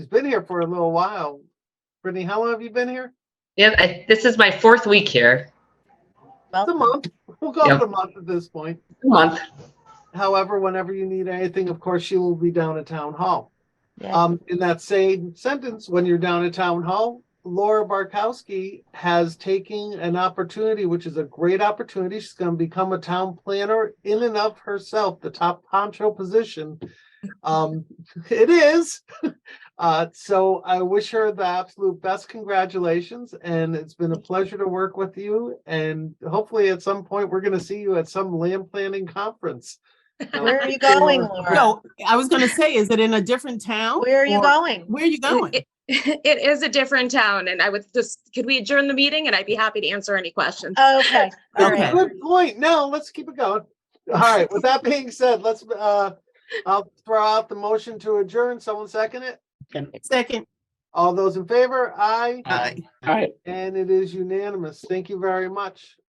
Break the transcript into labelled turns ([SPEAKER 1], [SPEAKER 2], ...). [SPEAKER 1] He's been here for a little while. Brittany, how long have you been here?
[SPEAKER 2] Yeah, I, this is my fourth week here,
[SPEAKER 1] It's a month. We'll call it
[SPEAKER 2] Yeah.
[SPEAKER 1] a month at this point.
[SPEAKER 2] a month.
[SPEAKER 1] However, whenever you need anything, of course, she will be down at town hall.
[SPEAKER 3] Yeah.
[SPEAKER 4] Uh,
[SPEAKER 1] Um, in that same sentence, when you're down at town hall, Laura Barkowski has taken an opportunity, which is a great opportunity. She's going to become a town planner in and of herself, the top poncho position. Um, it is. Uh, so I wish her the absolute best congratulations and it's been a pleasure to work with you. And hopefully at some point, we're going to see you at some land planning conference.
[SPEAKER 3] Where are you going,
[SPEAKER 1] Or-
[SPEAKER 3] Laura?
[SPEAKER 4] No, I was gonna say, is it in a different town?
[SPEAKER 3] Where are you
[SPEAKER 4] or-
[SPEAKER 3] going?
[SPEAKER 4] Where are you going?
[SPEAKER 5] It- It is a different town and I would just, could we adjourn the meeting and I'd be happy to answer any questions.
[SPEAKER 3] Okay, all right.
[SPEAKER 4] Okay.
[SPEAKER 1] Good point. No, let's keep it going. All right, with that being said, let's, uh, I'll throw out the motion to adjourn. Someone second it? Uh,
[SPEAKER 4] Second,
[SPEAKER 1] All those in favor? Aye.
[SPEAKER 4] aye.
[SPEAKER 6] All right.
[SPEAKER 1] And it is unanimous. Thank you very much.